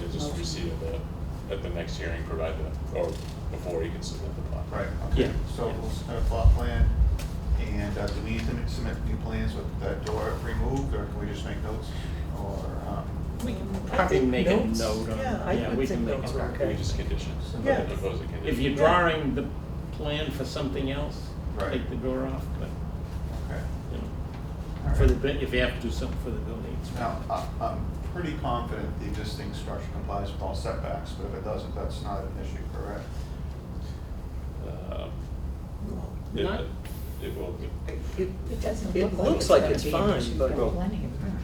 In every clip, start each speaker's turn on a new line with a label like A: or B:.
A: to just receive it at the next hearing, provided, or before you can submit the plot.
B: Right,
C: Yeah.
B: okay, so we'll submit a plot plan, and uh, do we need to m- submit new plans with that door removed, or can we just make notes? Or, um,
D: We can
C: Probably make a
D: notes.
C: note on-
D: Yeah,
C: yeah,
D: I
C: we
D: would think
C: can make
D: notes
C: a
D: are
C: note.
A: We
D: okay.
A: just condition,
D: Yeah.
A: impose a condition.
C: If you're drawing the plan for something else,
B: Right.
C: take the door off, but,
B: okay,
C: you know,
B: all
C: for the,
B: right.
C: bu- if you have to do something for the building. it's-
B: Now, I- I'm pretty confident the existing structure complies with all setbacks, but if it doesn't, that's not an issue, correct?
A: Um, it-
C: Not-
A: It will, be.
E: It
D: It doesn't
E: It
D: look like
E: looks
D: it's
E: like
D: gonna
E: it's
D: be
E: fine,
D: an issue,
E: but-
D: but plenty of room.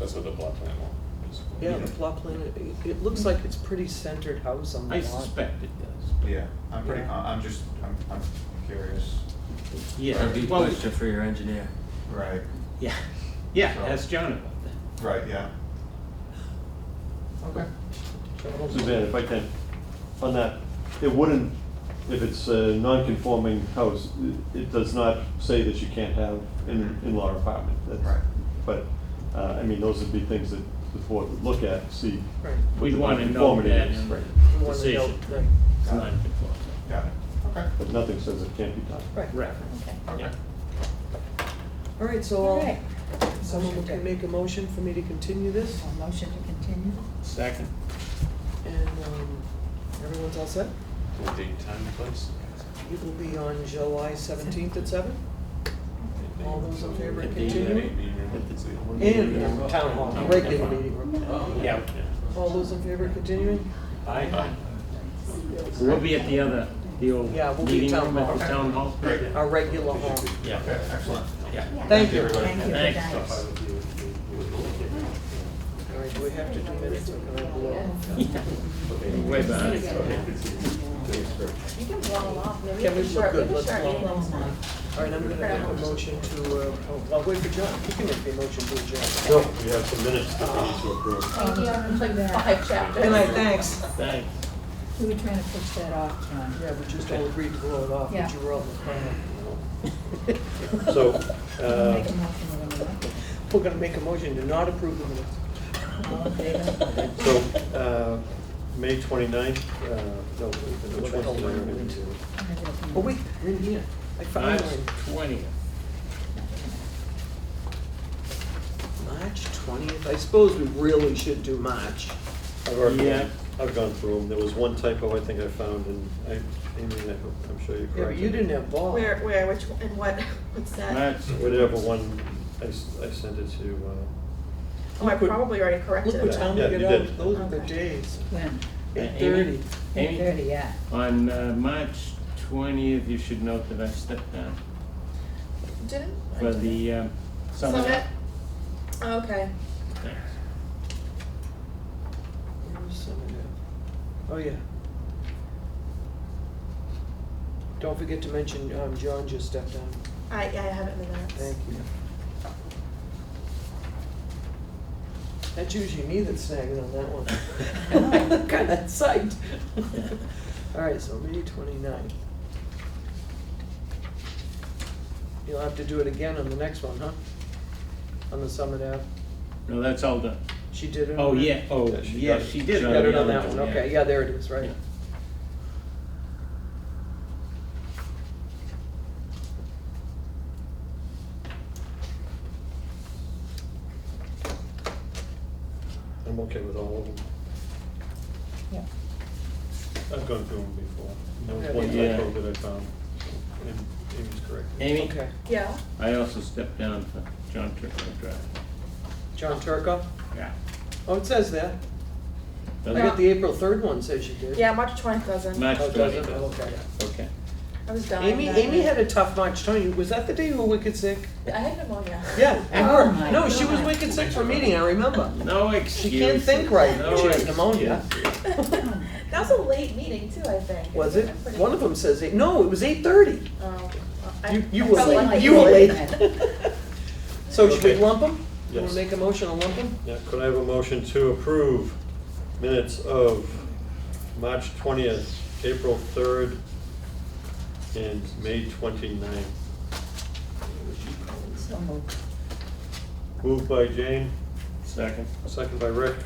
A: that's what the plot plan will, basically.
E: Yeah, the plot plan, it, it looks like it's pretty centered house on the
C: I
E: lot.
C: suspect it does, but,
B: Yeah, I'm pretty,
E: Yeah.
B: con- I'm just, I'm, I'm curious.
C: yeah,
F: That'd be a
C: well,
F: question for your engineer.
B: Right.
C: yeah, yeah,
B: So-
C: ask John about that.
B: Right, yeah. Okay.
G: Suzanne, if I can, on that, it wouldn't, if it's a non-conforming house, it it does not say that you can't have an in-law apartment. That's-
B: Right.
G: But, uh, I mean, those would be things that the board would look at, see.
E: Right.
G: what
C: We'd
G: the
C: wanna know
G: nonconformity
C: that
G: is,
C: in the
G: right.
E: You wanna
C: decision.
E: know, right.
C: It's
B: Got it.
C: non-conforming.
B: Got it, okay,
G: But nothing says it can't be done.
E: Right.
C: Right,
D: Okay.
B: okay.
C: yeah.
E: All right,
D: All
E: so
D: right.
E: I'll- someone
D: Motion
E: can
D: to-
E: make a motion for me to continue this,
D: A motion to continue?
C: Second.
E: and, um, everyone's all set?
A: The date, time, and place?
E: It will be on July seventeenth at seven, All those in favor
A: Date,
E: continue?
A: date, room.
E: in town hall, regular meeting room.
C: Yeah,
E: All those in favor of continuing?
C: I,
A: Aye.
C: we'll be at the other, the old
E: Yeah, we'll be
C: meeting
E: town
C: room at
E: hall.
C: the town hall.
B: Great.
E: Our regular hall.
C: Yeah,
B: Okay, excellent.
C: yeah.
E: Thank you.
B: everybody.
D: Thank you for
C: Thanks.
D: that.
E: All right, do we have to do minutes or can I blow?
C: Way behind.
H: You can blow them off.
E: Can we look good? Let's blow
H: them
E: them All right, I'm gonna make a motion to, uh, oh, well, wait for John, he can make the motion to adjourn.
G: No, we have some minutes that we need to approve.
H: Thank you, it's like five chapters.
E: Good night, thanks.
C: Thanks.
D: We were trying to push that off, John.
E: Yeah, we just all agreed to blow it off, but you were all the
G: So,
D: Make a
G: uh,
D: motion when you want.
E: We're gonna make a motion to not approve the minutes.
D: All in favor?
G: so, uh, May 29th, uh, no, which one's the one?
D: I'm gonna go.
E: Oh, wait, you're in here. I found
C: Five
E: mine.
C: twenty.
E: March twentieth, I suppose we really should do March.
G: I've already-
C: Yeah.
G: I've gone through them. There was one typo I think I found, and I, Amy, I hope- I'm sure you corrected.
E: Yeah, but you didn't have ball.
H: Where, where, which, one- and what, what's that?
C: That's,
G: Whatever one, I, s- I sent it to, uh,
H: Oh, I
E: Look what-
H: probably already
E: Look
H: corrected
E: what
H: that.
E: time we
G: Yeah,
E: get
G: you
E: out,
G: did.
E: those are the
H: Okay.
E: days.
D: When?
E: Eight
C: Amy?
E: thirty.
D: Eight
C: Amy,
D: thirty, yeah.
C: on uh, March twentieth, you should note that I stepped down
H: Didn't? I
C: for
H: didn't.
C: the um, summit.
H: Summit? Okay.
C: Thanks.
E: Where was some of that? Oh, yeah. Don't forget to mention, um, John just stepped down.
H: I, I have it in the minutes.
E: Thank you. That's usually me that's snagging on that one. Kind of psyched. All right, so May 29th. You'll have to do it again on the next one, huh? On the Summit Ave.
C: No, that's all done.
E: She did it. on
C: Oh,
E: that?
C: yeah, oh,
G: Yeah, she
C: yeah,
G: got it.
C: she
E: She
C: did on
E: got it
C: the
E: on
C: other
E: that one, okay,
C: yeah.
E: yeah, there it is, right.
G: I'm okay with all of them.
D: Yeah.
G: I've gone through them before. There was one
C: Yeah.
G: typo that I found, and Amy's corrected.
C: Amy,
E: Okay,
H: Yeah,
C: I also stepped down for John Turco Drive.
E: John Turco,
C: Yeah.
E: oh, it says that. I
C: Does
E: got
C: it?
E: the April third one says you did.
H: yeah, March twentieth doesn't.
C: March
E: Oh, it doesn't,
C: twentieth,
E: Oh, okay.
C: okay.
H: I was dying.
E: Amy,
H: that
E: Amy
H: day.
E: had a tough March, Tony, was that the day you were wicked sick?
H: I had pneumonia.
E: Yeah, you
D: Oh
E: were.
D: my
E: No, she was
D: God.
E: wicked sick for a meeting, I remember.
C: No excuses.
E: can't think right.
C: No
E: She has pneumonia.
C: excuses.
H: That was a late meeting too, I think.
E: Was it?
H: I'm pretty-
E: One of them says eight, no, it was eight thirty.
H: Oh, I-
E: You, you
H: I
E: were
H: felt
E: late,
H: like-
E: you were late. So should we
G: Okay.
E: lump them? You wanna
G: Yes.
E: make a motion to lump them?
G: Yeah, could I have a motion to approve minutes of March twentieth, April third, and May 29th?
D: So moved.
G: Moved by Jane,
C: Second.
G: second by Rick.